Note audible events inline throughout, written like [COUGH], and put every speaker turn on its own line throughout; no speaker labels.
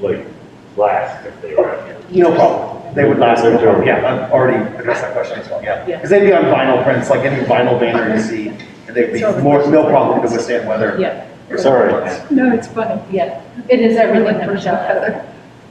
like last if they were out here.
No problem. They would last, no problem. Yeah, I've already addressed that question as well, yeah.
Yeah.
Because they'd be on vinyl prints, like any vinyl banner you see, and they'd be
It's all the-
more, no problem to withstand weather.
Yeah,
or
It's all right.
something else.
No, it's funny.
yeah, it is everything that Michelle has.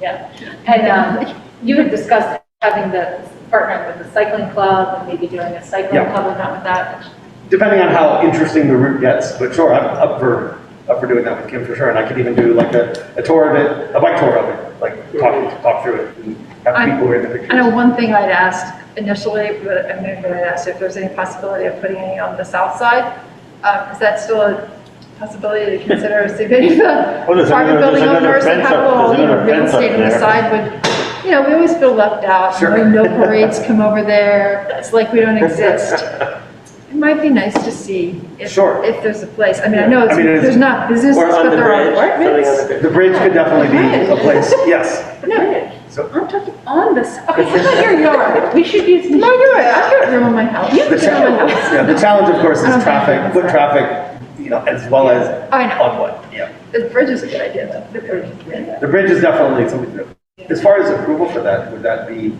Yeah, and um, you had discussed having the, partnering with the cycling club and maybe doing a cycling
Yeah.
club or not with that.
Depending on how interesting the route gets, but sure, I'm up for, up for doing that with Kim for sure. And I could even do like a, a tour of it, a bike tour of it, like talk, talk through it and have
I'm-
people who are in the
I know
pictures.
one thing I'd asked initially, but I moved when I asked if there's any possibility of putting any on the south side. Uh, Is that still a possibility to consider, see if any of the
Well, there's
private
another-
building
there's another
owners that
fence
have a
up-
little
there's
you know,
another
real
fence up
estate on the
there.
side would, you know, we always feel left out.
Sure.
We know parades come over there, it's like we don't exist. It might be nice to see if,
Sure.
if there's a place. I mean,
Yeah.
I know
I
it's-
mean, it is-
there's not businesses,
Or on
but
the
there are
bridge, something on
apartments.
the bridge.
The bridge could definitely be a place,
[LAUGHS]
yes.
No,
So
I'm talking on this, okay, how about your yard? We should use.
No, you're right. I've got room in my house.
The challenge, yeah, the challenge, of course, is traffic, foot traffic, you know, as well as
[LAUGHS] I know.
on what, yeah.
The bridge is a good idea, though. The bridge is a good idea.
The bridge is definitely something to do. As far as approval for that, would that be,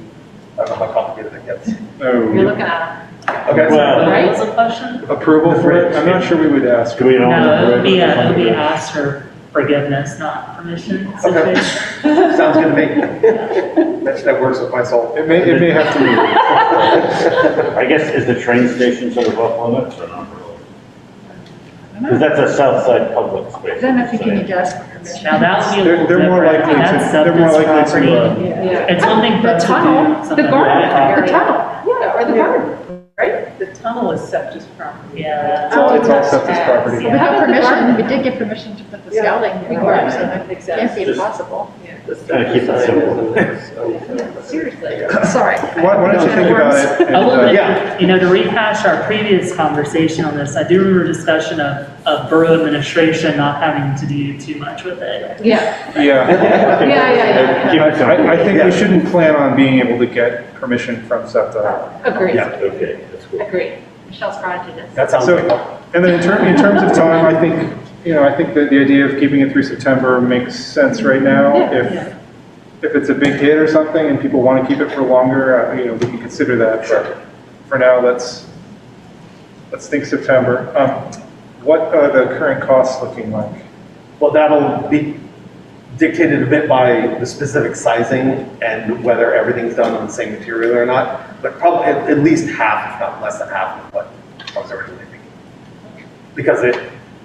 I don't know how complicated it gets.
You're looking at
Okay,
it,
Well-
so
right?
What was the question?
Approval for it? I'm not sure we would ask.
Do we own
No, it
the
would be,
bridge?
a- it would be asked for forgiveness, not permission
Okay.
situation.
sounds good to me. That, that works with my soul.
It may, it may have to be.
[LAUGHS] I guess, is the train station sort of off limits or not? Because that's a south side public space.
Then I think you need
so-
to ask for permission.
Now, that would be a
They're,
little
they're more
different.
likely to,
That's
they're more
substance
likely
property.
to, uh,
Yeah.
It's one thing for
The
us to do
tunnel, the
something
garden,
like
the
that.
tunnel.
Yeah, or the garden, right? The tunnel is septic property.
It's
Yeah.
all, it's all septic property.
We
Yeah.
got permission, we did get permission to put the
Yeah.
scouting in there, so it can't
Exactly.
be
Just-
impossible.
Gotta keep it simple.
Seriously.
Sorry.
why why don't you think about it? and,
A little
uh,
yeah.
bit, you know, to rehash our previous conversation on this, I do remember discussion of, of borough administration not having to do too much with it.
Yeah,
Yeah.
yeah, yeah,
Keep
I,
it simple.
I- I think
Yeah.
we shouldn't plan on being able to get permission from SEPTA.
yeah. Agree,
Yeah.
Okay, that's cool.
agree. Michelle's granted it.
That sounds
So,
good.
and then in terms, in terms of time, I think, you know, I think that the idea of keeping it through September makes sense right now.
Yeah.
If, if it's a big hit or something and people want to keep it for longer, uh, you know, we can consider that. But for now, let's, let's think September. Um, What are the current costs looking like?
Well, that'll be dictated a bit by the specific sizing and whether everything's done on the same material or not, but probably at, at least half, if not less than half of what I was originally thinking. Because it,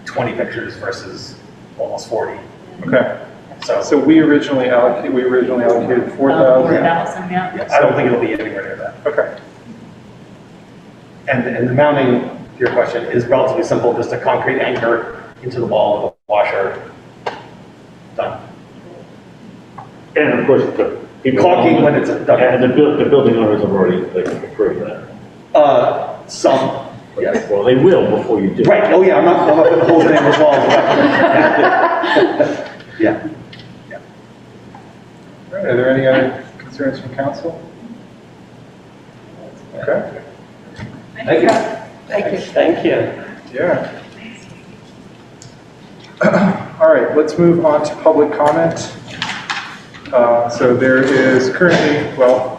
20 pictures versus almost 40,
Okay,
so
so we originally allocated, we originally allocated four
Um, Four
thousand.
thousand, yeah.
I don't think it'll be anywhere near that.
Okay,
And, and the mounting, to your question, is relatively simple, just a concrete anchor into the wall of a washer. Done.
And of course, the. people-
Caulking when it's done.
And the buil, the building owners have already like approved that.
Uh, some, yes.
Well, they will before you do. it.
Right, oh yeah, I'm not, I'm not putting holes in anyone's walls. [LAUGHS] Yeah. Yeah.
All right, are there any other concerns from council? Okay,
Thank you.
Thank you.
Thank you.
yeah. All right, let's move on to public comment. Uh, So there is currently, well,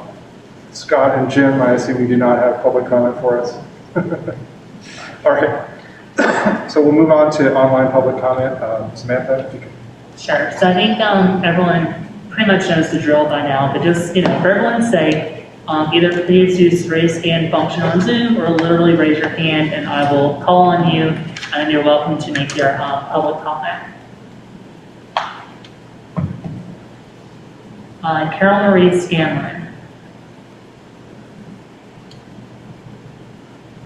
Scott and Jim, I assume you do not have public comment for us. [LAUGHS] All right, [COUGHS] so we'll move on to online public comment. Um, Samantha, if you can
Sure, so I think, um, everyone pretty much knows the drill by now, but just, you know, for everyone's sake, um, either please use the raise hand function on Zoom, or literally raise your hand, and I will call on you, and you're welcome to make your, um, public comment. Uh, Carol Marie Scanlon.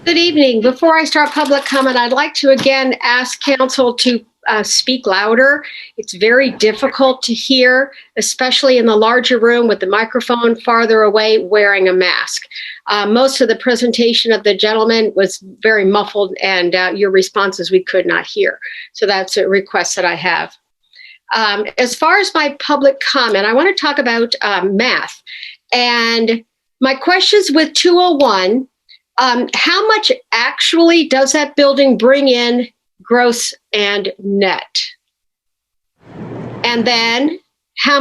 Good evening. Before I start public comment, I'd like to again ask council to uh, speak louder. It's very difficult to hear, especially in the larger room with the microphone farther away wearing a mask. Uh, Most of the presentation of the gentleman was very muffled and uh, your responses we could not hear. So that's a request that I have. Um, As far as my public comment, I want to talk about um, math. And my questions with 201 um, how much actually does that building bring in gross and net? And then how